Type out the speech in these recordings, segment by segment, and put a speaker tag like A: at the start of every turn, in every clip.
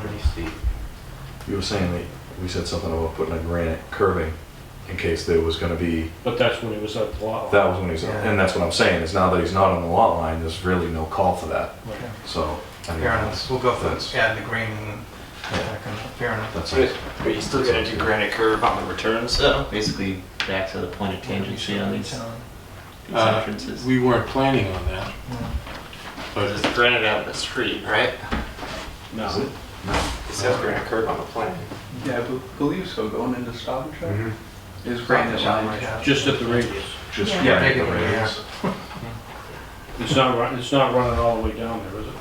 A: pretty steep.
B: You were saying that, we said something about putting a granite curving in case there was gonna be,
C: But that's when he was at the lot.
B: that was when he's, and that's what I'm saying, is now that he's not on the lot line, there's really no call for that,
C: Right.
B: so. I mean,
A: Fair enough, we'll go
B: that's-
A: for, yeah, the green, and that kind of- fair enough.
B: That's
D: But
B: it.
D: but you still gotta do granite curve on the returns though, basically back to the point of tangency on these these
E: Uh,
D: entrances.
E: We weren't planning on that,
D: But
E: but
D: it's granite out of the street, right?
B: Is it?
C: No,
D: It says granite curve on the plan.
F: Yeah, I be- believe so, going into Stop and Shop.
E: Mhm.
F: Is granite lined.
A: Yeah.
C: just at the radius.
B: Just
G: Yeah.
A: Yeah,
B: granite
A: big
B: the radius.
A: areas.
C: It's not run, it's not running all the way down there, is it?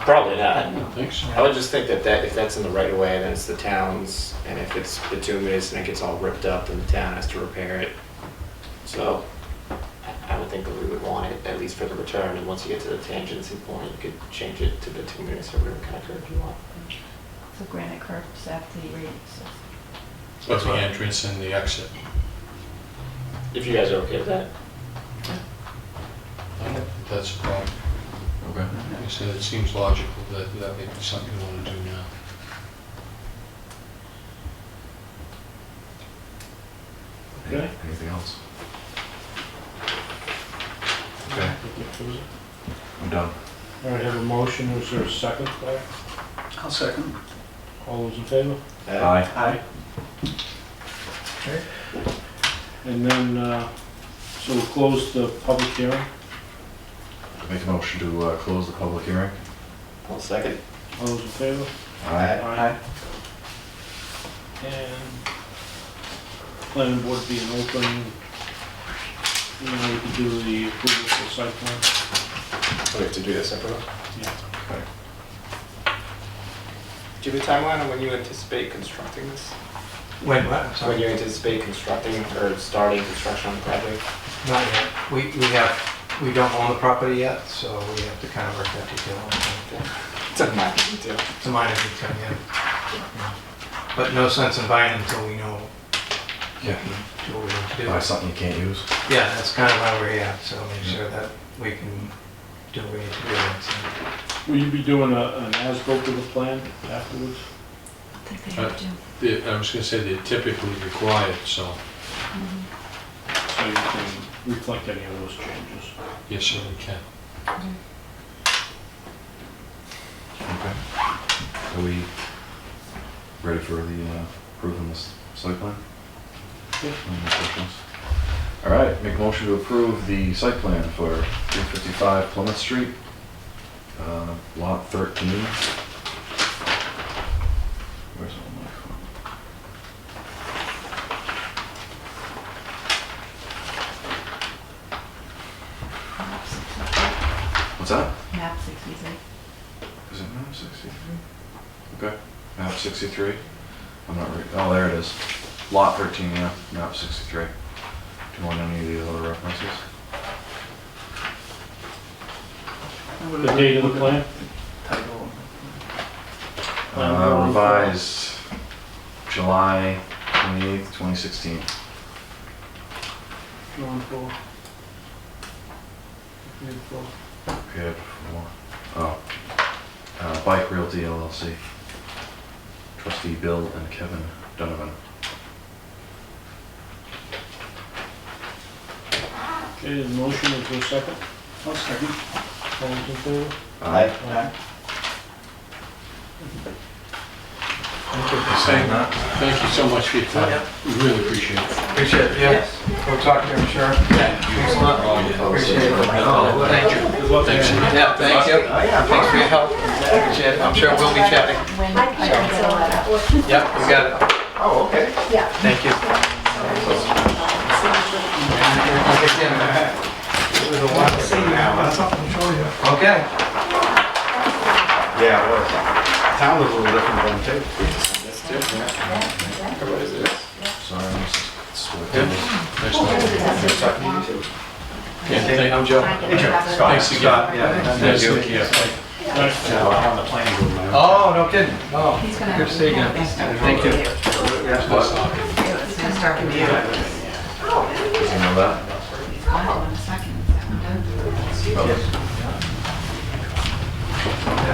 D: Probably
E: I
D: not.
E: don't think so.
D: I would just think that that, if that's in the right of way, then it's the town's, and if it's bituminous and it gets all ripped up, then the town has to repair it. So, I- I would think that we would want it, at least for the return, and once you get to the tangency point, you could change it to bituminous or whatever kind of curve you want.
G: So granite curves after the radius.
E: Of the entrance and the exit.
D: If you guys are okay with that?
E: I don't think That's a problem.
B: Okay.
E: Like I said, it seems logical that that may be something you want to do now.
C: Okay.
B: Anything else? Okay, I'm done.
C: All right, have a motion, is there a second there?
F: I'll second.
C: All those in favor?
D: Uh,
B: Aye.
F: Aye.
C: And then, uh, so we'll close the public hearing.
B: Make a motion to uh, close the public hearing.
D: One second.
C: All those in favor?
B: Aye.
F: Aye.
C: And planning board being open, you know, we can do the approval for site plan.
D: We have to do this separately?
C: Yeah.
B: Okay.
D: Do you have a timeline on when you anticipate constructing this?
A: Wait, what, I'm
D: When
A: sorry,
D: you anticipate constructing or starting construction on the project?
A: not yet, we, we have, we don't own the property yet, so we have to kind of work that detail out.
D: It's a minor detail.
A: It's a minor detail, yeah. Yeah. But no sense in buying until we know
B: Yeah.
A: do what we need to do.
B: Buy something you can't use.
A: Yeah, that's kind of why we're here, so make sure that we can do what we need to do. so.
C: Will you be doing a, an as-built to the plan afterwards?
G: I think they have to.
E: The- I was gonna say they're typically required, so,
G: Mhm.
C: So you can reflect any of those changes.
E: yes, sir, we can.
B: Okay. Are we ready for the uh, approving this site plan?
C: Yeah.
B: Any more questions? All right, make motion to approve the site plan for 355 Plymouth Street, uh, Lot 13. Where's all my phone?
G: Map 63.
B: What's that?
G: Map 63.
B: Is it map 63? Okay, map 63. I'm not, re- oh, there it is. Lot 13, yeah, map 63. Do you want any of the other references?
C: The date of the plan?
F: Title.
C: Plan
B: Uh,
C: one.
B: revised July 28th, 2016.
C: Drawn for. Made for.
B: Prepared for more. Oh. Uh, Bike Realty LLC. Trustee Bill and Kevin Donovan.
C: Okay, the motion is there a second?
F: I'll second.
C: All those in favor?
B: Aye.
F: Aye.
E: Thank thank you so much for your time.
A: Yeah.
E: We really appreciate it.
A: Appreciate it, yeah. We'll talk to you, I'm sure. Thanks a lot. Appreciate it.
D: Oh,
A: Thank you.
E: Thanks.
A: Yeah, thank you. Thanks for your help. Appreciate it. I'm sure we'll be chatting.
G: When
H: I can
G: I
H: fill that out.
A: Yep, we got it.
D: Oh, okay.
H: Yeah.
A: Thank you. Okay.
D: Yeah, it was. Town was a little different than too. That's different. What is this?
B: Sorry, I'm s- sweating.
E: Nice to- Yeah, thank-
A: I'm Joe.
E: Thanks again.
A: Yeah.
E: Nice to meet you.
C: Nice.
A: Oh, no kidding. Oh,
G: He's gonna.
A: Good to see you again. Thank you.
G: It's gonna start with you.
H: Oh,
B: Does he know that?
G: I don't want a second. Is that one done?
B: Oh,